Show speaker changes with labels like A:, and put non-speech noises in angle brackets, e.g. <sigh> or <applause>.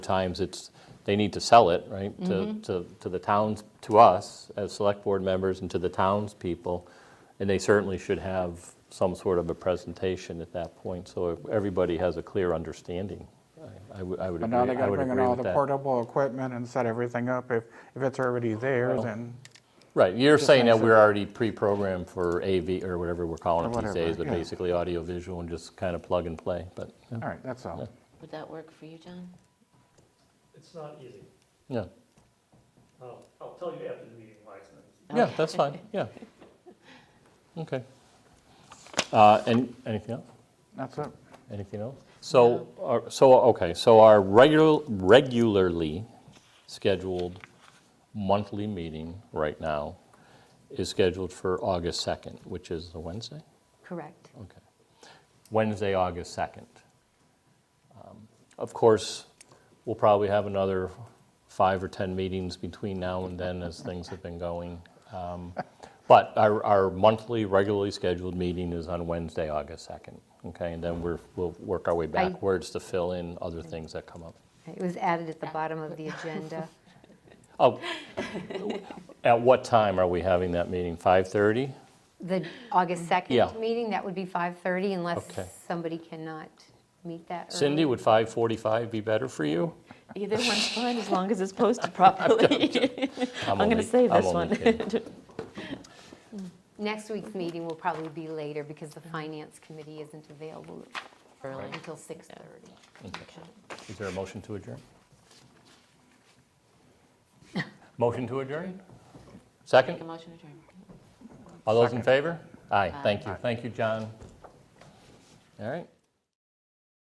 A: times it's, they need to sell it, right, to, to, to the towns, to us as select board members and to the townspeople. And they certainly should have some sort of a presentation at that point, so everybody has a clear understanding. I- I would, I would
B: But
A: agree,
B: now they
A: I
B: gotta
A: would
B: bring in
A: agree
B: all
A: with
B: the
A: that.
B: portable equipment and set everything up. If, if it's already there,
A: Well,
B: then,
A: Right, you're saying that
B: things that-
A: we're already pre-programmed for AV, or whatever we're calling it these
B: Whatever,
A: days, but
B: yeah.
A: basically audio visual and just kind of plug and play, but, yeah.
B: all right, that's all.
C: Would that work for you, John?
D: It's not easy.
A: yeah.
D: I'll, I'll tell you after the meeting why it's not easy.
A: Yeah, that's fine, yeah. Okay. Uh, And, anything else?
B: That's it.
A: Anything else? So, our- so, okay, so our regular, regularly scheduled monthly meeting right now is scheduled for August 2nd, which is the Wednesday?
C: Correct.
A: Okay. Wednesday, August 2nd. Um, Of course, we'll probably have another five or 10 meetings between now and then as things have been going. Um, But our our monthly, regularly scheduled meeting is on Wednesday, August 2nd, okay? And then we're, we'll work our way backwards to fill in other things that come up.
E: It was added at the bottom of
A: <laughs>
E: the agenda.
A: Oh, <laughs> at what time are we having that meeting? 5:30?
E: The August
A: Yeah.
E: 2nd meeting, that would be 5:30 unless
A: Okay.
E: somebody cannot meet that early.
A: Cindy, would 5:45 be better for you?
C: Either one's fine, as long as it's <laughs> posted properly. <laughs> I'm going to
A: only-
C: save
A: I'm
C: this
A: only
C: one. <laughs>
A: kidding.
E: Next week's meeting will probably be later because the
A: Mm-hmm.
E: Finance Committee isn't available until 6:30.
A: Is there a motion to adjourn? Motion to adjourn? Second?
C: motion adjourned.
A: All those in favor? Aye, thank you. Thank you, John. All right.